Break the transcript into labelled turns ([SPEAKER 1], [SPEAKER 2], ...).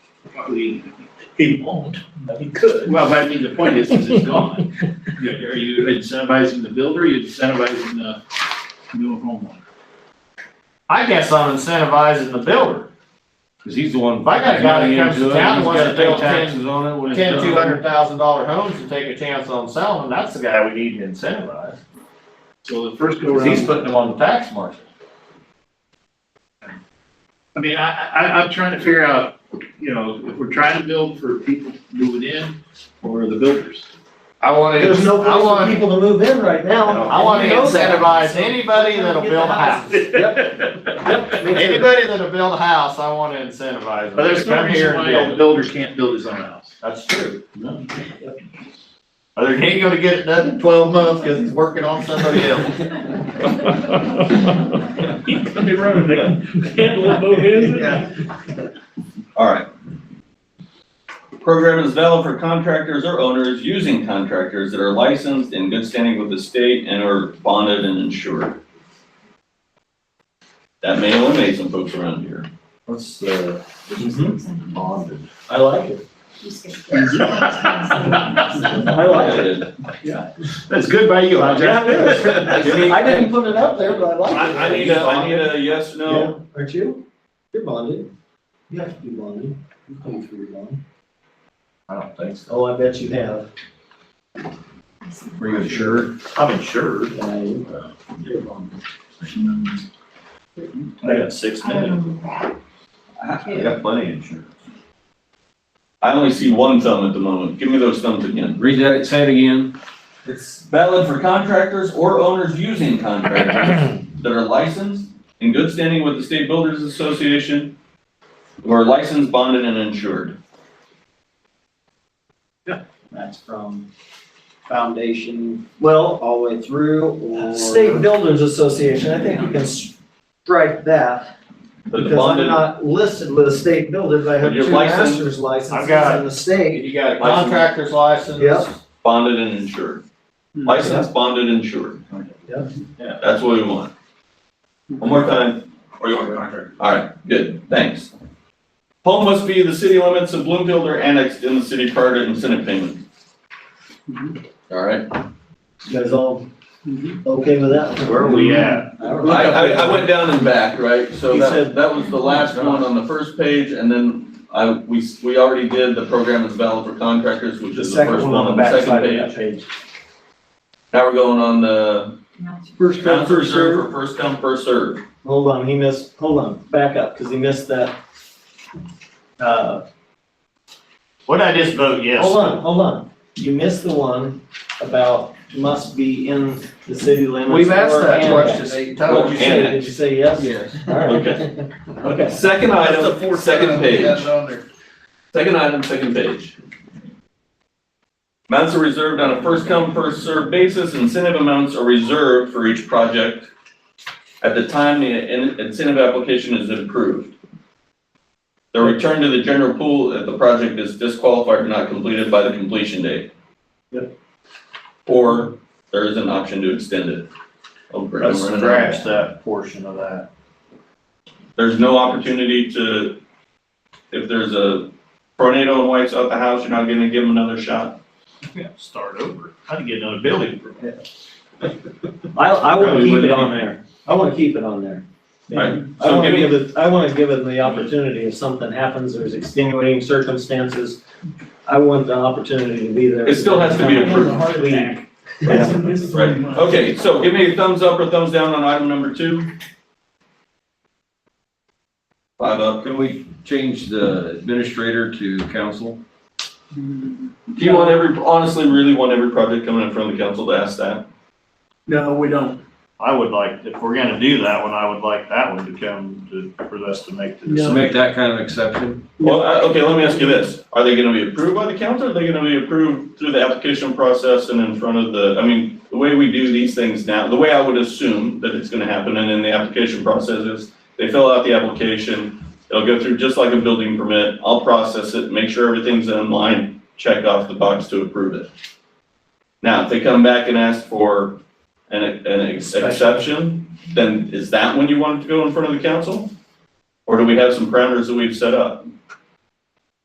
[SPEAKER 1] property,
[SPEAKER 2] He won't, but he could.
[SPEAKER 1] well, but I mean, the point is, is it's gone. You- Are you incentivizing the builder, or you incentivizing the new homeowner?
[SPEAKER 3] I guess I'm incentivizing the builder.
[SPEAKER 1] Because he's the one.
[SPEAKER 3] If I got a guy that comes to town and wants to build ten-
[SPEAKER 1] Taxes on it when it's
[SPEAKER 3] Ten,
[SPEAKER 1] done.
[SPEAKER 3] two hundred thousand dollar homes and take a chance on selling, that's the guy we need to incentivize.
[SPEAKER 1] So the first go
[SPEAKER 3] Cause he's
[SPEAKER 1] round,
[SPEAKER 3] putting them on the tax market.
[SPEAKER 1] I mean, I, I, I'm trying to figure out, you know, if we're trying to build for people moving in or the builders.
[SPEAKER 3] I wanna,
[SPEAKER 2] There's no
[SPEAKER 3] I
[SPEAKER 2] place for
[SPEAKER 3] wanna,
[SPEAKER 2] people to move in right now.
[SPEAKER 3] I wanna
[SPEAKER 2] You know that.
[SPEAKER 3] incentivize anybody that'll build a house.
[SPEAKER 2] Yep, me too.
[SPEAKER 3] Anybody that'll build a house, I wanna incentivize
[SPEAKER 1] But
[SPEAKER 3] them to
[SPEAKER 1] there's no
[SPEAKER 3] come
[SPEAKER 1] reason
[SPEAKER 3] here and
[SPEAKER 1] why a
[SPEAKER 3] build. it.
[SPEAKER 1] builder can't build his own house.
[SPEAKER 3] That's true.
[SPEAKER 1] No.
[SPEAKER 3] Or they ain't gonna get it done in twelve months, cause he's working on somebody else.
[SPEAKER 1] He's gonna be running.
[SPEAKER 4] All right. Program is valid for contractors or owners using contractors that are licensed in good standing with the state and are bonded and insured. That may eliminate some folks around here.
[SPEAKER 3] What's, uh, bonded?
[SPEAKER 2] I like it. I like it.
[SPEAKER 1] That's good by you, Roger.
[SPEAKER 2] Yeah, it is. I didn't put it up there, but I
[SPEAKER 4] I, I
[SPEAKER 2] like it.
[SPEAKER 4] need a, I need a yes,
[SPEAKER 2] Yeah,
[SPEAKER 4] no.
[SPEAKER 2] Aren't you? You're bonded. You have to be bonded. You pay for your bond.
[SPEAKER 3] I don't think so.
[SPEAKER 2] Oh, I bet you have.
[SPEAKER 1] Were you insured?
[SPEAKER 3] I'm insured.
[SPEAKER 2] I-
[SPEAKER 1] You're bonded.
[SPEAKER 4] I got six minutes.
[SPEAKER 5] I
[SPEAKER 4] got plenty of insurance. I only see one thumb at the moment. Give me those thumbs again.
[SPEAKER 6] Read that, say it again.
[SPEAKER 4] It's valid for contractors or owners using contractors that are licensed, in good standing with the State Builders Association, who are licensed, bonded, and insured.
[SPEAKER 2] That's from foundation, well, all the way through or?
[SPEAKER 7] State Builders Association, I think you can strike that,
[SPEAKER 4] But the
[SPEAKER 7] because I'm
[SPEAKER 4] bonded,
[SPEAKER 7] not listed with the state builders, I have
[SPEAKER 4] But you're
[SPEAKER 7] two
[SPEAKER 4] licensed?
[SPEAKER 7] master's licenses
[SPEAKER 3] I've got it.
[SPEAKER 7] in the state.
[SPEAKER 3] You got a contractor's license.
[SPEAKER 7] Yep.
[SPEAKER 4] bonded and insured. Licensed, bonded, insured.
[SPEAKER 7] Hmm. Yeah.
[SPEAKER 4] Yeah, that's what we want. One more time. Or you want a contractor? All right, good, thanks. Home must be the city limits of Bloomfield or annexed in the city prior to incentive payment. All right,
[SPEAKER 2] You guys all
[SPEAKER 1] Mm-hmm.
[SPEAKER 2] okay with that?
[SPEAKER 1] Where are we at?
[SPEAKER 4] I, I, I went down and back, right, so
[SPEAKER 2] He
[SPEAKER 4] that,
[SPEAKER 2] said-
[SPEAKER 4] that was the last one on the first page, and then I, we, s- we already did the program is valid for contractors, which
[SPEAKER 2] The
[SPEAKER 4] is the
[SPEAKER 2] second
[SPEAKER 4] first
[SPEAKER 2] one on the
[SPEAKER 4] the
[SPEAKER 2] back
[SPEAKER 4] second
[SPEAKER 2] side of
[SPEAKER 4] page.
[SPEAKER 2] that page.
[SPEAKER 4] Now we're going on the.
[SPEAKER 2] First come, first served.
[SPEAKER 4] For first come, first served.
[SPEAKER 2] Hold on, he missed, hold on, back up, because he missed that. Uh,
[SPEAKER 3] Would I just vote yes?
[SPEAKER 2] hold on, hold on. You missed the one about must be in the city limits.
[SPEAKER 3] We've asked
[SPEAKER 2] or
[SPEAKER 3] that
[SPEAKER 2] annexed.
[SPEAKER 3] question eight
[SPEAKER 2] What
[SPEAKER 3] times.
[SPEAKER 2] did you say? Did you say yes?
[SPEAKER 6] Yes.
[SPEAKER 2] All right,
[SPEAKER 4] Okay,
[SPEAKER 2] okay.
[SPEAKER 4] second item, second page,
[SPEAKER 6] on there.
[SPEAKER 4] second item, second page. Amounts are reserved on a first come, first served basis, incentive amounts are reserved for each project at the time the in- incentive application is approved. They're returned to the general pool if the project is disqualified or not completed by the completion date.
[SPEAKER 2] Yep.
[SPEAKER 4] Or there is an option to extend it. Oh, great, I'm
[SPEAKER 3] Let's
[SPEAKER 4] running out.
[SPEAKER 3] scratch that portion of that.
[SPEAKER 4] There's no opportunity to, if there's a tornado and wipes out the house, you're not gonna give them another shot.
[SPEAKER 3] Yeah, start over. How to get another building permit.
[SPEAKER 2] I, I want to
[SPEAKER 1] Probably
[SPEAKER 2] keep it
[SPEAKER 1] wouldn't
[SPEAKER 2] on there. I want to keep it on there.
[SPEAKER 4] Right.
[SPEAKER 2] I
[SPEAKER 4] So
[SPEAKER 2] want to
[SPEAKER 4] give me-
[SPEAKER 2] give it, I want to give it the opportunity if something happens, there's extenuating circumstances. I want the opportunity to be there.
[SPEAKER 4] It still has to be approved.
[SPEAKER 2] Please.
[SPEAKER 4] Right. Okay, so give me a thumbs up or thumbs down on item number two. Five up.
[SPEAKER 6] Can we change the administrator to council?
[SPEAKER 4] Do you want every, honestly, really want every project coming in front of the council to ask that?
[SPEAKER 1] No, we don't.
[SPEAKER 3] I would like, if we're gonna do that one, I would like that one to come to, for us to make the
[SPEAKER 2] No.
[SPEAKER 3] decision.
[SPEAKER 6] Make that kind of exception?
[SPEAKER 4] Well, I- okay, let me ask you this. Are they gonna be approved by the council? Are they gonna be approved through the application process and in front of the, I mean, the way we do these things now, the way I would assume that it's gonna happen and in the application process is they fill out the application, it'll go through just like a building permit. I'll process it, make sure everything's in line, check off the box to approve it. Now, if they come back and ask for an, an ex- exception, then is that when you want it to go in front of the council? Or do we have some parameters that we've set up?